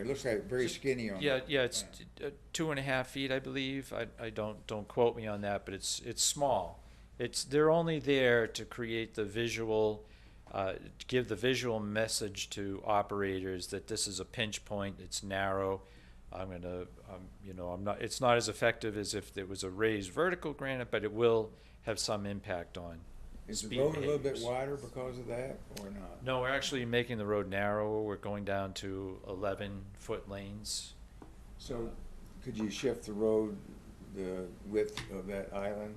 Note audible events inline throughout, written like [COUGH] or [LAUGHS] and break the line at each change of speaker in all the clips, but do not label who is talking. It looks like very skinny on.
Yeah,
the
yeah, it's
plan.
t- uh, two and a half feet, I believe. I, I don't, don't quote me on that, but it's, it's small. It's, they're only there to create the visual, uh, to give the visual message to operators that this is a pinch point, it's narrow. I'm gonna, um, you know, I'm not, it's not as effective as if it was a raised vertical granite, but it will have some impact on.
Is the
speed
road a little bit
behaviors.
wider because of that or not?
No, we're actually making the road narrower. We're going down to eleven foot lanes.
So could you shift the road, the width of that island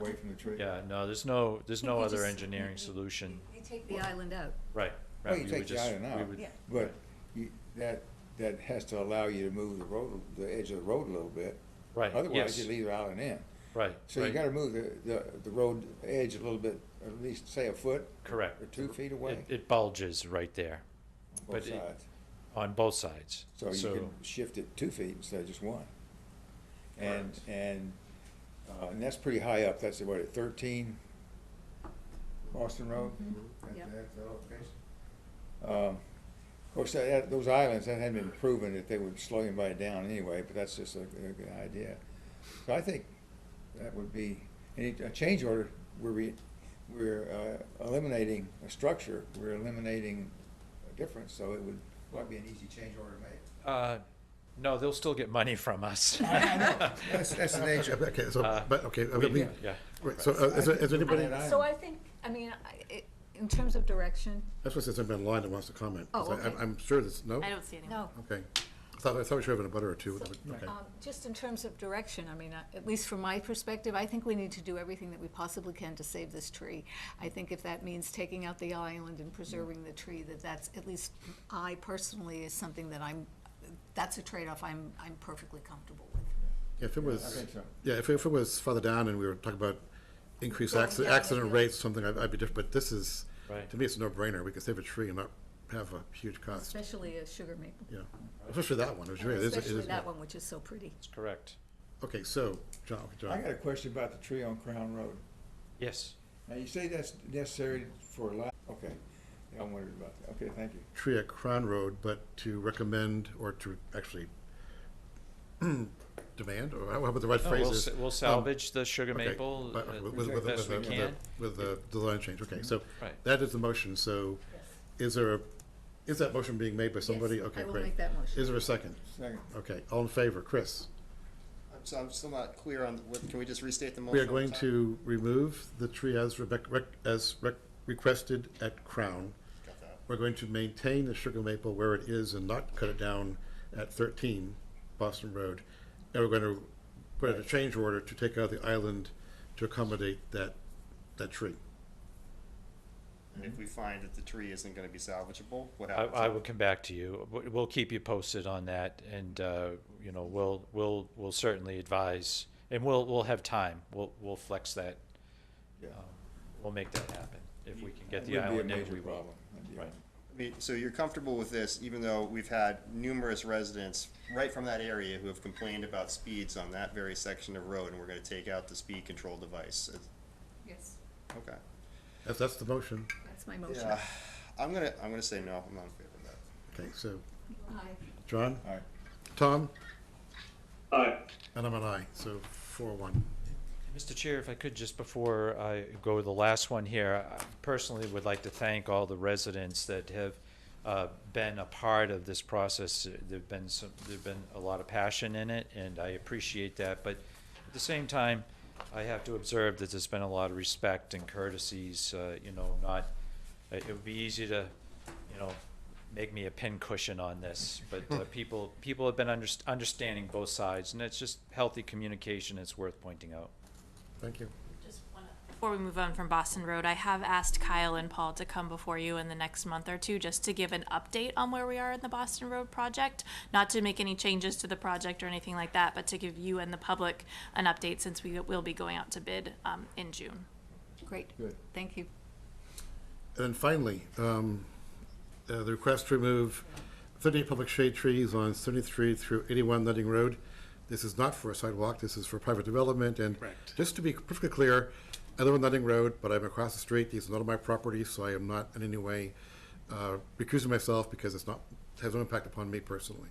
away from the tree?
Yeah, no, there's no, there's no
You
other
just-
engineering
you-
solution.
You take the island out.
Right.
Well,
right,
Oh, you
we
take
would
the
just-
iron
we
out.
would-
Yeah.
But you, that, that has to allow you to move the road, the edge of the road a little bit.
Right,
Otherwise,
yes.
you leave the island in.
Right.
So you
right,
gotta move the, the, the road edge a little bit, at least say a foot
Correct.
or two feet away,
It- It bulges right there but
both
it-
sides.
on both sides.
So you can
So,
shift it two feet instead of just one. And,
Correct.
and, uh, and that's pretty high up, that's what, at thirteen Boston Road?
Mm-hmm.
That-
Yep.
that- that location? Um, Of course, that- that, those islands, that hadn't been proven that they would slow anybody down anyway, but that's just a, a good idea. So I think that would be, any, a change order, where we, we're, uh, eliminating a structure, we're eliminating a difference, so it would, might be an easy change order to make.
uh, no, they'll still get money
[LAUGHS]
from us.
That's, that's the nature of it.
Okay, so,
Uh,
but, okay,
[LAUGHS]
I
We-
mean,
Yeah.
right, so uh, is there- is anybody,
Right.
that's
So I think, I mean, I- it- in terms of direction,
what it says somebody online that wants to comment. 'cause
Oh,
I- I'm-
okay.
I'm sure this, no?
I don't see anyone.
no.
Okay. I thought, I thought we should have a butter or two, but- okay.
Um, Just in terms of direction, I mean, uh, at least from my perspective, I think we need to do everything that we possibly can to save this tree. I think if that means taking out the island and preserving the tree, that that's, at least I personally, is something that I'm, that's a trade-off I'm, I'm perfectly comfortable with.
Yeah, If it was,
think so.
yeah, if it if it was farther down and we were talking about increased
Going
accident,
down the
accident
hill.
rates, something, I'd I'd be different, but this is,
Right.
to me, it's a no-brainer. We could save a tree and not have a huge cost,
Especially a sugar maple,
yeah. Especially that one, it was really, it is- it is-
especially that one, which is so pretty.
That's correct.
Okay, so, John, okay, John.
I got a question about the tree on Crown Road.
Yes.
Now, you say that's necessary for li- okay, Yeah, I wondered about that, okay, thank you.
tree at Crown Road, but to recommend or to actually [CLEARS THROAT] demand, or how about the right
No, Oh, we'll,
phrases? um,
s- we'll salvage the sugar
Okay,
maple
but-
uh,
with- with-
the
with-
best we
with the-
can. Mm-hmm.
With the design change, okay, so
Right.
that is the motion, so is there, a is that motion being made by somebody?
Yes,
Okay,
I will
great.
make that motion.
Is there a second?
Second,
Okay, all in favor, Chris?
I'm, so I'm still not clear on what, can we just restate the motion?
We are
one
going
time?
to remove the tree as Rebecca, rec- as rec- requested at Crown.
Got that.
We're going to maintain the sugar maple where it is and not cut it down at thirteen Boston Road. And we're going to put out a change order to take out the island to accommodate that, that tree.
And if we find that the tree isn't gonna be salvageable, what
I,
happens?
I will come back to you. W- We'll keep you posted on that, and uh, you know, we'll we'll we'll certainly advise, and we'll we'll have time. We'll we'll flex that.
yeah.
Um, we'll make that happen if we can get
That wouldn't
the
be a
island in.
major
We will.
problem. That'd be all
Right.
I mean, So you're comfortable with this, even though we've had numerous residents right from that area who have complained about speeds on that very section of road, and we're gonna take out the speed control device? It's-
Yes,
Okay.
That's, that's the motion.
that's my motion.
Yeah, I'm gonna, I'm gonna say no, I'm not in favor of that.
Okay, so,
Aye.
John,
All right,
Tom,
Aye.
and I'm an aye, so four one.
Mr. Chair, if I could, just before I go to the last one here, I personally would like to thank all the residents that have uh, been a part of this process. There've been some, there've been a lot of passion in it, and I appreciate that. But at the same time, I have to observe that there's been a lot of respect and courtesies, uh, you know, not, it it would be easy to, you know, make me a pin cushion on this, but uh, people, people have been underst- understanding both sides, and it's just healthy communication. It's worth pointing out.
Thank you.
Before we move on from Boston Road, I have asked Kyle and Paul to come before you in the next month or two just to give an update on where we are in the Boston Road project. Not to make any changes to the project or anything like that, but to give you and the public an update since we will be going out to bid um, in June.
Great,
Good.
thank you.
And then finally, um, uh, the request to remove thirty public shade trees on seventy-three through eighty-one Nutting Road. This is not for a sidewalk, this is for private development, and just to be perfectly clear, I live on Nutting Road, but I'm across the street, these are not on my property, so I am not in any way uh, recusing myself because it's not has no impact upon me personally.